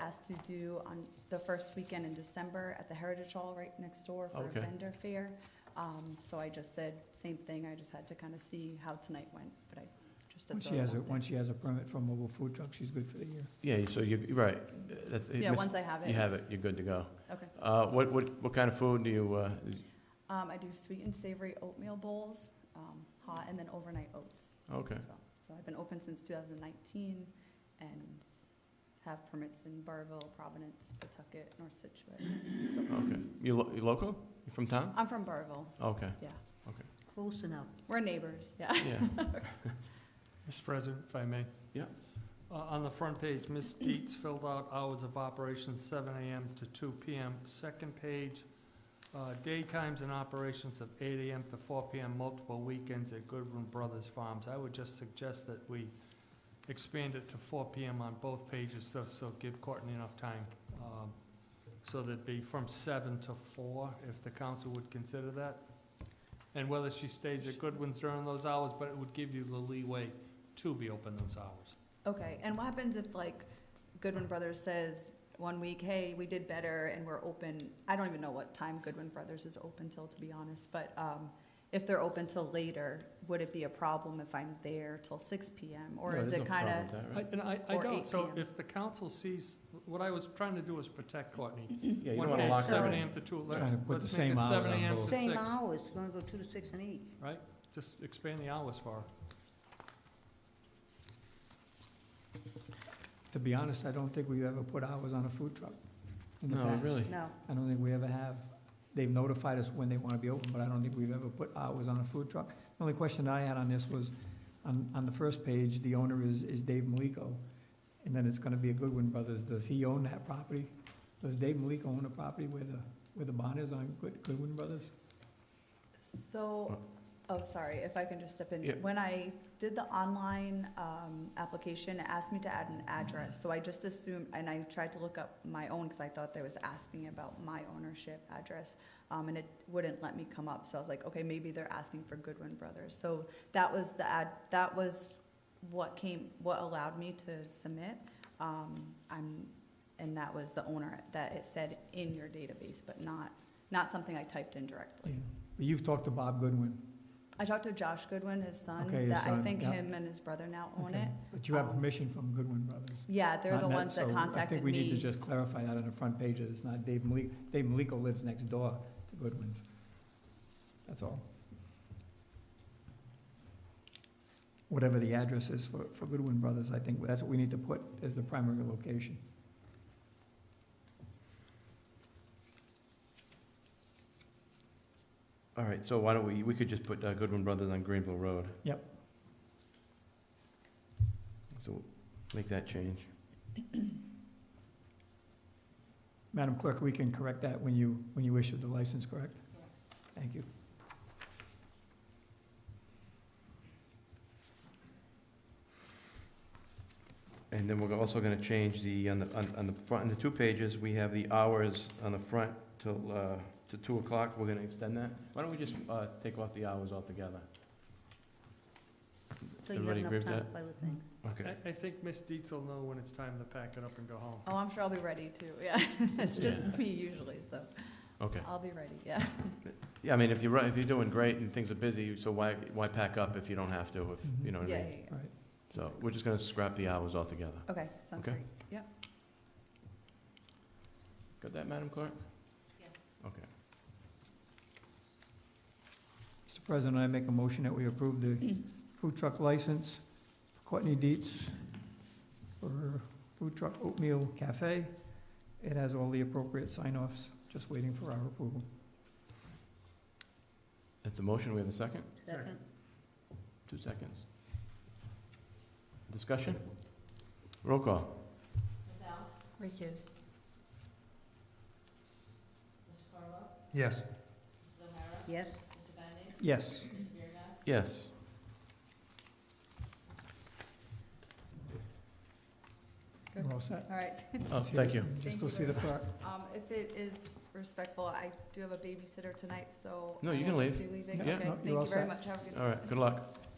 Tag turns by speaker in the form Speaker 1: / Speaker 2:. Speaker 1: asked to do on the first weekend in December at the Heritage Hall right next door for a
Speaker 2: Okay.
Speaker 1: vendor fair. Um, so I just said, same thing, I just had to kind of see how tonight went, but I just. did
Speaker 3: Once she
Speaker 1: throw it
Speaker 3: has a,
Speaker 1: out there.
Speaker 3: once she has a permit for a mobile food truck, she's good for the year.
Speaker 2: Yeah, so you're, you're right. That's, it
Speaker 1: Yeah,
Speaker 2: mis-
Speaker 1: once I have it.
Speaker 2: Uh, you have it,
Speaker 1: it's-
Speaker 2: you're good to go.
Speaker 1: Okay.
Speaker 2: Uh, what, what, what kind of food do you, uh, is-
Speaker 1: Um, I do sweet and savory oatmeal bowls, um, hot, and then overnight oats
Speaker 2: okay,
Speaker 1: as well. So I've been open since two thousand nineteen and have permits in Barville, Providence, Pawtucket, North Situate. So-
Speaker 2: okay. You lo- you local? You from town?
Speaker 1: I'm from Barville,
Speaker 2: Okay,
Speaker 4: Close enough.
Speaker 1: we're neighbors, yeah.
Speaker 2: yeah.
Speaker 5: Mr. President, if I may.
Speaker 2: Yeah.
Speaker 5: Uh, On the front page, Ms. Dietz filled out hours of operation, seven AM to two PM. Second page, uh, daytimes and operations of eight AM to four PM, multiple weekends at Goodwin Brothers Farms. I would just suggest that we expand it to four PM on both pages, so, so give Courtney enough time. um, So that'd be from seven to four, if the council would consider that. And whether she stays at Goodwin's during those hours, but it would give you the leeway to be open those hours.
Speaker 1: Okay, and what happens if like Goodwin Brothers says one week, hey, we did better and we're open, I don't even know what time Goodwin Brothers is open till, to be honest, but, um, if they're open till later, would it be a problem if I'm there till six PM? Or
Speaker 2: No,
Speaker 1: is
Speaker 2: there's no
Speaker 1: it kinda,
Speaker 2: problem with that,
Speaker 5: I-
Speaker 2: right?
Speaker 5: And I, I
Speaker 1: Or
Speaker 5: don't,
Speaker 1: 8
Speaker 5: so
Speaker 1: p.m.
Speaker 5: if the council sees, what I was trying to do is protect Courtney.
Speaker 2: Yeah, you don't
Speaker 5: One
Speaker 2: wanna
Speaker 5: page,
Speaker 2: lock
Speaker 5: Seven
Speaker 2: everything.
Speaker 5: AM to two, let's,
Speaker 3: Trying to put the
Speaker 5: let's make
Speaker 3: same
Speaker 5: it
Speaker 3: hours
Speaker 5: seven
Speaker 3: on
Speaker 5: AM to
Speaker 3: both.
Speaker 5: six.
Speaker 4: Same hours, gonna go two to six and eight.
Speaker 5: Just expand the hours for her.
Speaker 3: To be honest, I don't think we've ever put hours on a food truck in the
Speaker 2: No,
Speaker 3: past.
Speaker 2: really?
Speaker 4: No,
Speaker 3: I don't think we ever have. They've notified us when they want to be open, but I don't think we've ever put hours on a food truck. The only question I had on this was, on, on the first page, the owner is, is Dave Maliko, and then it's gonna be a Goodwin Brothers. Does he own that property? Does Dave Maliko own the property where the, where the bond is on Good- Goodwin Brothers?
Speaker 1: So, oh, sorry, if I can just step in.
Speaker 2: Yeah.
Speaker 1: When I did the online um, application, it asked me to add an address. So I just assumed, and I tried to look up my own because I thought they was asking about my ownership address. um, And it wouldn't let me come up. So I was like, okay, maybe they're asking for Goodwin Brothers. So that was the ad, that was what came, what allowed me to submit. Um, I'm, and that was the owner that it said in your database, but not, not something I typed in directly.
Speaker 3: But You've talked to Bob Goodwin.
Speaker 1: I talked to Josh Goodwin, his son,
Speaker 3: Okay, his
Speaker 1: that I
Speaker 3: son,
Speaker 1: think
Speaker 3: yeah.
Speaker 1: him and his brother now own
Speaker 3: Okay.
Speaker 1: it.
Speaker 3: But you have
Speaker 1: Um,
Speaker 3: permission from Goodwin Brothers.
Speaker 1: Yeah, they're the
Speaker 3: Not net-
Speaker 1: ones that
Speaker 3: so I
Speaker 1: contacted
Speaker 3: think we need to
Speaker 1: me.
Speaker 3: just clarify that on the front page, that it's not Dave Malik, Dave Maliko lives next door to Goodwin's. That's all. Whatever the address is for, for Goodwin Brothers, I think that's what we need to put as the primary location.
Speaker 2: All right, so why don't we, we could just put uh, Goodwin Brothers on Greenville Road.
Speaker 3: Yep.
Speaker 2: So make that change.
Speaker 3: Madam Clerk, we can correct that when you, when you issue the license, correct? Thank you.
Speaker 2: And then we're also gonna change the, on the, on on the front, on the two pages, we have the hours on the front till, uh, to two o'clock, we're gonna extend that. Why don't we just, uh, take off the hours altogether?
Speaker 4: so you have
Speaker 2: Everybody agree with
Speaker 4: enough time to
Speaker 2: that?
Speaker 4: play with things.
Speaker 2: Okay.
Speaker 5: I, I think Ms. Dietz will know when it's time to pack it up and go home.
Speaker 1: Oh, I'm sure I'll be ready too, yeah. It's just
Speaker 2: Yeah.
Speaker 1: me usually, so
Speaker 2: Okay.
Speaker 1: I'll be ready, yeah.
Speaker 2: Yeah, I mean, if you're, ru- if you're doing great and things are busy, so why, why pack up if you don't have to, if, you know
Speaker 1: Yeah,
Speaker 2: what I
Speaker 1: yeah,
Speaker 2: mean?
Speaker 1: yeah.
Speaker 3: Right.
Speaker 2: So we're just gonna scrap the hours altogether.
Speaker 1: Okay, sounds
Speaker 2: Okay.
Speaker 1: great. Yep.
Speaker 2: Got that, Madam Clerk?
Speaker 4: Yes.
Speaker 2: Okay.
Speaker 3: Mr. President, I make a motion that we approve the food truck license for Courtney Dietz for Food Truck Oatmeal Cafe. It has all the appropriate sign-offs, just waiting for our approval.
Speaker 2: That's a motion. We have a second?
Speaker 4: Second,
Speaker 2: Two seconds. Discussion? Roll call.
Speaker 1: Recuse.
Speaker 5: Yes.
Speaker 4: yes,
Speaker 3: Yes.
Speaker 2: Yes.
Speaker 3: We're all set.
Speaker 1: All right,
Speaker 2: Oh, thank you.
Speaker 3: Just
Speaker 1: Thank
Speaker 3: go
Speaker 1: you
Speaker 3: see the
Speaker 1: very
Speaker 3: clerk.
Speaker 1: um, if it is respectful, I do have a babysitter tonight, so.
Speaker 2: No,
Speaker 1: I
Speaker 2: you can
Speaker 1: will just
Speaker 2: leave.
Speaker 1: be leaving.
Speaker 2: Yeah,
Speaker 1: Okay,
Speaker 3: no, you're all
Speaker 1: Thank you very
Speaker 3: set.
Speaker 1: much, have a good
Speaker 2: All right, good luck.